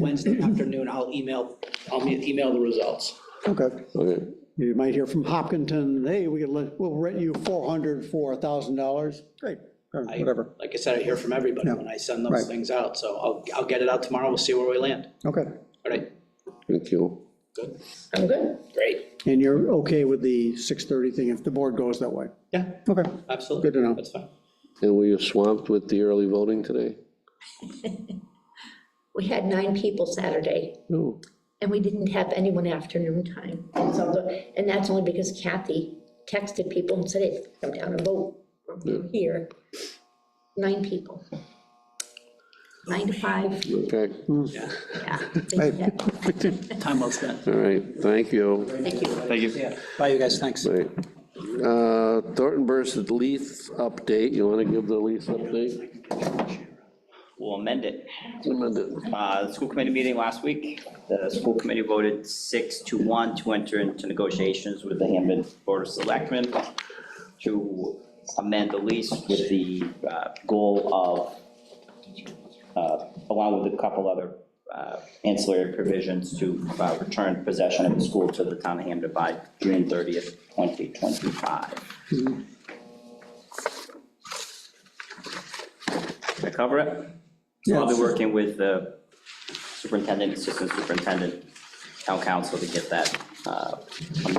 Wednesday afternoon, I'll email, I'll me- email the results. Okay. Okay, You might hear from Hopkinton, hey, we could, let- we'll rent you 400 for $1,000. Great, or I- whatever. Like I said, I hear from everybody Yeah. when I send Right. those things out, so I'll, I'll get it out tomorrow, we'll see where we land. Okay. All right, thank you. good, I'm good. great, And you're okay with the 6:30 thing if the board goes that way? yeah, Okay. absolutely. Good to know. That's fine. And were you swamped with the early voting today? We had nine people Saturday, No. and we didn't have anyone afternoon time. So, the- and that's only because Kathy texted people and said, hey, come down and vote from here. Nine people. Nine to five, Okay, all Yeah, yeah. Hey. time well spent. right, thank you. Thank you. Thank you. Yeah, bye, you guys, thanks. Right. Uh, Thornton Burst lease update, you want to give the lease update? We'll amend it. Amend it. Uh, The school committee meeting last week, the school committee voted six to one to enter into negotiations with the Hampton Board of Selectmen to amend the lease with the uh, goal of, uh, along with a couple other uh, ancillary provisions, to uh, return possession of the school to the town of Hampton by June 30th, 2025. Did I cover it? So I'll be working with the superintendent, assistant superintendent, town council to get that uh,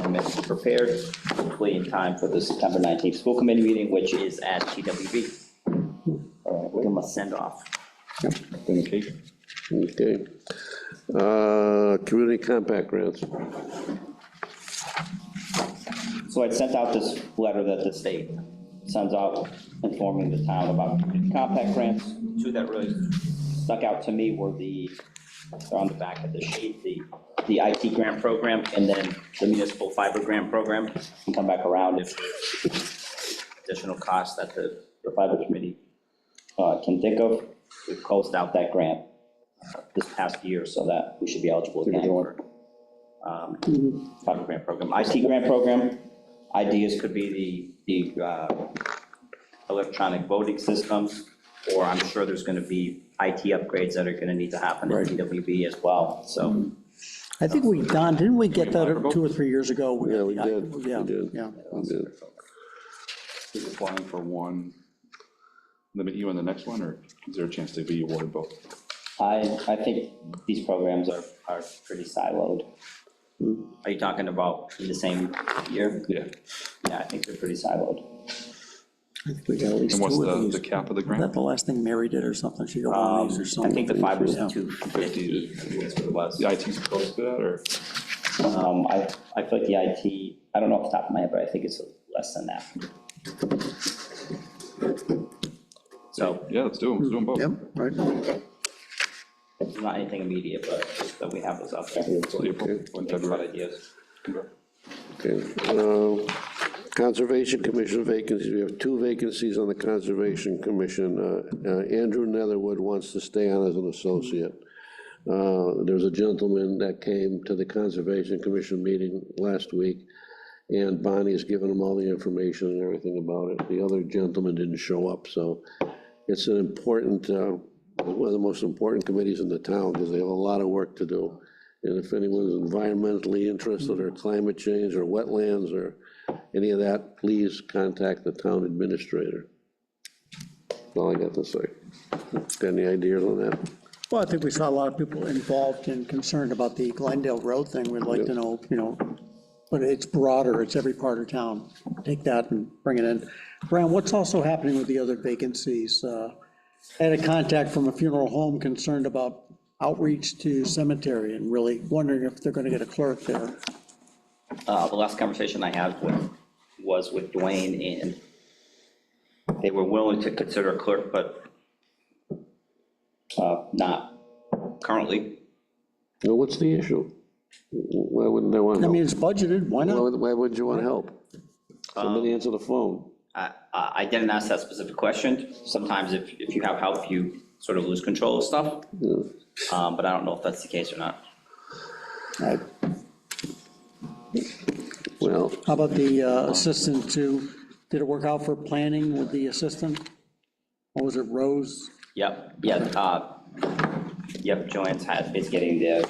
amendment prepared, hopefully in time for the September 19th school committee meeting, which is at TWB. All right, we're gonna send off. Communication. Okay. Uh, Community compact grants. So I sent out this letter that the state sends out informing the town about compact grants. Two that really stuck out to me were the, they're on the back of the sheet, the, the IT grant program and then the municipal fiber grant program. Can come back around if additional costs that the, the fiber committee uh, can think of. We've closed out that grant uh, this past year so that we should be eligible again for um, fiber grant program. IT grant program, ideas could be the, the uh, electronic voting systems, or I'm sure there's going to be IT upgrades that are going to need to happen at DWB as well, so. I think we, Don, didn't we get that two or three years ago? Yeah, we did, we Yeah, did. yeah. We did. Is applying for one, limit you on the next one, or is there a chance to be awarded both? I, I think these programs are, are pretty siloed. Are you talking about in the same year? Yeah. Yeah, I think they're pretty siloed. I think we got at least And what's two of the, these. the cap of the Is that grant? the last thing Mary did or something? She got one of these or Um, I something. think the fiber's Yeah. 250, that's what it was. The IT's supposed to that, or? Um, I, I feel like the IT, I don't know off the top of my head, but I think it's less than that. So, Yeah, let's do them, let's do them both. Yep, right. it's not anything immediate, but just that we have those out there. Till April, when Think about February. ideas. Okay. Uh, Conservation Commission vacancies, we have two vacancies on the Conservation Commission. Uh, uh, Andrew Netherwood wants to stay on as an associate. Uh, There was a gentleman that came to the Conservation Commission meeting last week, and Bonnie has given him all the information and everything about it. The other gentleman didn't show up, so it's an important, uh, one of the most important committees in the town, because they have a lot of work to do. And if anyone's environmentally interested, or climate change, or wetlands, or any of that, please contact the town administrator. That's all I got to say. Got any ideas on that? Well, I think we saw a lot of people involved and concerned about the Glendale Road thing. We'd like to know, you know, but it's broader, it's every part of town. Take that and bring it in. Brown, what's also happening with the other vacancies? Uh, I Had a contact from a funeral home concerned about outreach to cemetery and really wondering if they're going to get a clerk there. Uh, the last conversation I had with, was with Dwayne, and they were willing to consider a clerk, but uh, not currently. Well, what's the issue? Why wouldn't they want I mean, help? it's budgeted, why Why not? would- Why wouldn't you want help? Somebody answer the phone. I, I I didn't ask that specific question. Sometimes if, if you have help, you sort of lose control of stuff. Um, But I don't know if that's the case or not. I- Well, How about the uh, assistant to, did it work out for planning with the assistant? Or was it Rose? Yep, yeah, uh, Yep, Joanne's had, is getting the